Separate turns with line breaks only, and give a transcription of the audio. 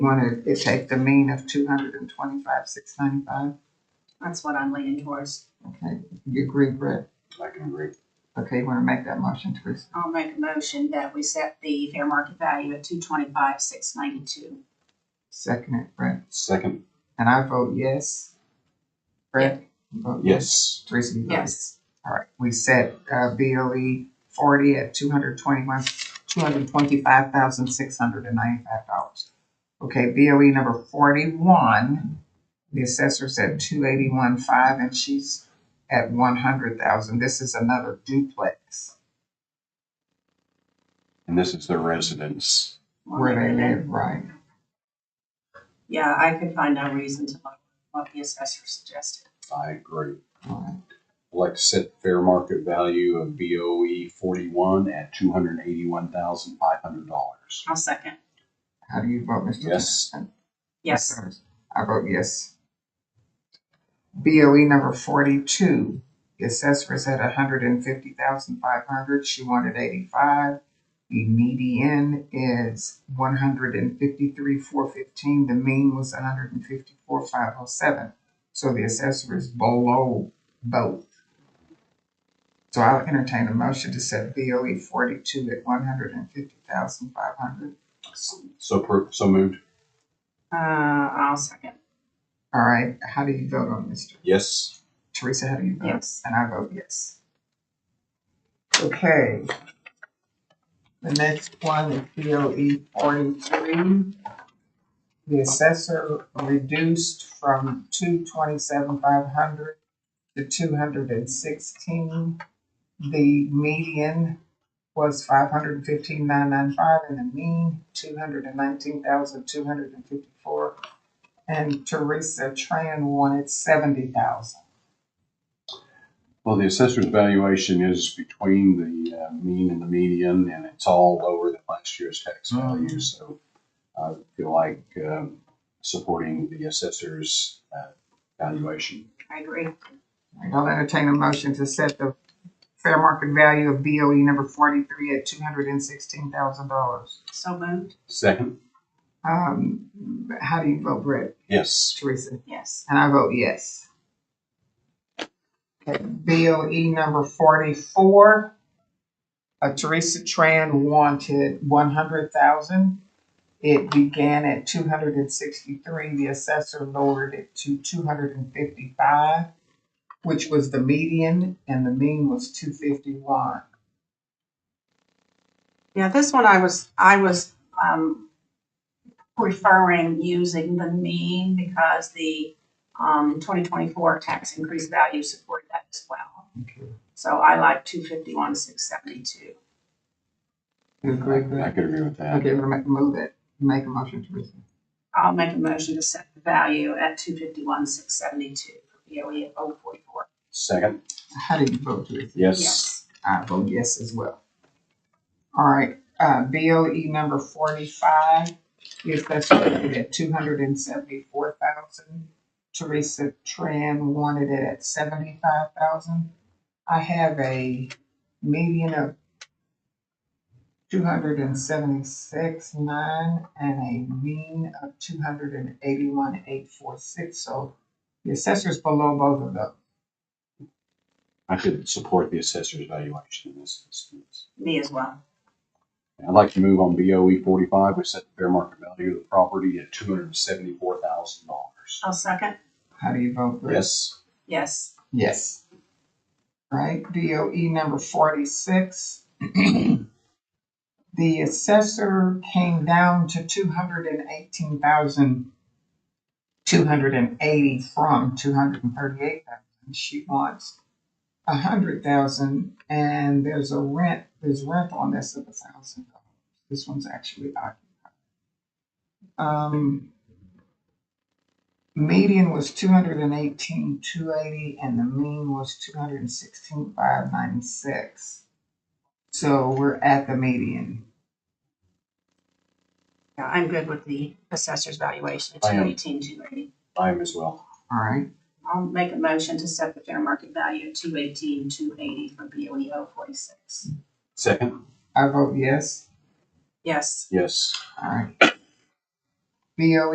Want to take the mean of two hundred and twenty-five, six ninety-five?
That's what I'm leaning towards.
Okay, you agree, Brett?
I can agree.
Okay, you want to make that motion, Teresa?
I'll make a motion that we set the fair market value at two twenty-five, six ninety-two.
Second it, Brett.
Second,
And I vote yes. Brett? you vote
yes.
Teresa, you vote yes.
Yes.
All right, we set, uh, BOE forty at two hundred twenty-one, two hundred twenty-five thousand, six hundred and ninety-five dollars. Okay, BOE number forty-one, the assessor's at two eighty-one five, and she's at one hundred thousand. This is another duplex
And this is their residence.
where they live, right?
Yeah, I could find no reason to look what the assessor suggested.
I agree.
All right.
I'd like to set the fair market value of BOE forty-one at two hundred and eighty-one thousand five hundred dollars.
I'll second.
How do you vote, Mr.
Yes.
Johnson?
Yes.
I vote yes. BOE number forty-two, the assessor is at a hundred and fifty thousand five hundred, she wanted eighty-five. The median is one hundred and fifty-three, four fifteen, the mean was hundred and fifty-four, five oh seven. So the assessor is below both. So I'll entertain a motion to set BOE forty-two at one hundred and fifty thousand five hundred.
So per, so moved.
Uh, I'll second.
All right, how do you vote on this?
Yes.
Teresa, how do you vote?
Yes.
And I vote yes. Okay. The next one is BOE forty-three. The assessor reduced from two twenty-seven five hundred to two hundred and sixteen. The median was five hundred and fifteen nine nine five and the mean two hundred and nineteen thousand two hundred and fifty-four. And Teresa Tran wanted seventy thousand.
Well, the assessor's valuation is between the uh, mean and the median, and it's all lower than last year's tax value. So I feel like um, supporting the assessor's uh, valuation.
I agree.
I'll entertain a motion to set the fair market value of BOE number forty-three at two hundred and sixteen thousand dollars.
So moved.
Second,
Um, how do you vote, Brett,
yes.
Teresa?
Yes.
And I vote yes. Okay, BOE number forty-four. Uh, Teresa Tran wanted one hundred thousand. It began at two hundred and sixty-three. The assessor lowered it to two hundred and fifty-five, which was the median, and the mean was two fifty-one.
Yeah, this one I was, I was, um, preferring using the mean because the, um, twenty twenty-four tax increase value supported that as well. So I like two fifty-one, six seventy-two.
You
I
agree with
I
that?
could agree with that.
Okay, we're gonna move it, make a motion, Teresa.
I'll make a motion to set the value at two fifty-one, six seventy-two for BOE at oh forty-four.
Second,
How do you vote, Teresa?
yes.
Yes.
I vote yes as well. All right, uh, BOE number forty-five, the assessor rated at two hundred and seventy-four thousand. Teresa Tran wanted it at seventy-five thousand. I have a median of two hundred and seventy-six nine and a mean of two hundred and eighty-one eight four six, so the assessor's below both of those.
I could support the assessor's valuation in this instance.
Me as well.
I'd like to move on BOE forty-five, we set the fair market value of the property at two hundred and seventy-four thousand dollars.
I'll second.
How do you vote, Bruce?
Yes,
Yes.
Yes. Right, DOE number forty-six. The assessor came down to two hundred and eighteen thousand, two hundred and eighty from two hundred and thirty-eight thousand. She wants a hundred thousand and there's a rent, there's rent on this of a thousand dollars. This one's actually occupied. Um, median was two hundred and eighteen, two eighty, and the mean was two hundred and sixteen, five ninety-six. So we're at the median.
Yeah, I'm good with the assessor's valuation at
I am.
two eighteen, two eighty.
I am as well.
All right,
I'll make a motion to set the fair market value at two eighteen, two eighty for BOE oh forty-six.
Second,
I vote yes.
Yes.
yes.
All right. BOE